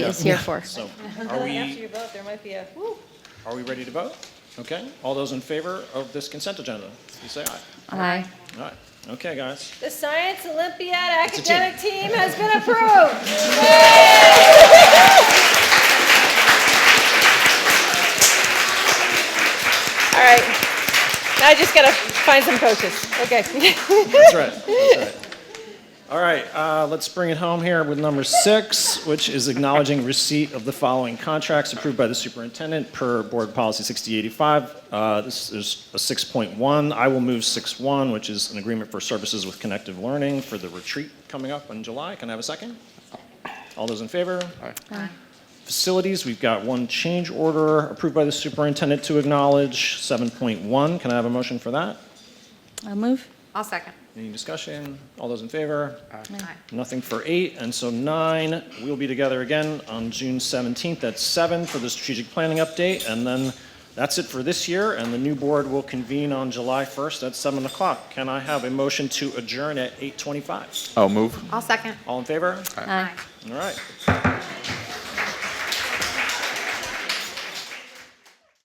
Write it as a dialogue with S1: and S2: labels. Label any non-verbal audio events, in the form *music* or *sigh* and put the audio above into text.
S1: is here for.
S2: So are
S3: After
S2: we,
S3: your vote, there might be a, woo.
S2: are we ready to vote? Okay, all those in favor of this consent agenda, please say aye.
S1: Aye.
S2: All right, okay, guys.
S3: The Science Olympiad
S2: a team.
S3: academic team has been approved. All right. Now I just gotta find some coaches. Okay. *laughs*
S2: That's right, that's right. All right, uh, let's bring it home here with number six, which is acknowledging receipt of the following contracts approved by the superintendent per Board Policy 6085. Uh, This is a 6.1. I will move 6.1, which is an agreement for services with Connective Learning for the retreat coming up in July. Can I have a second? All those in favor? Facilities, we've got one change order approved by the superintendent to acknowledge, 7.1. Can I have a motion for that?
S1: I'll move.
S4: I'll second.
S2: Any discussion? All those in favor?
S4: Aye.
S2: Nothing for eight, and so nine, we'll be together again on June 17th at seven for the strategic planning update, and then that's it for this year, and the new board will convene on July 1st at 7 o'clock. Can I have a motion to adjourn at 8:25?
S5: I'll move.
S4: I'll second.
S2: All in favor?
S1: Aye.
S2: All right.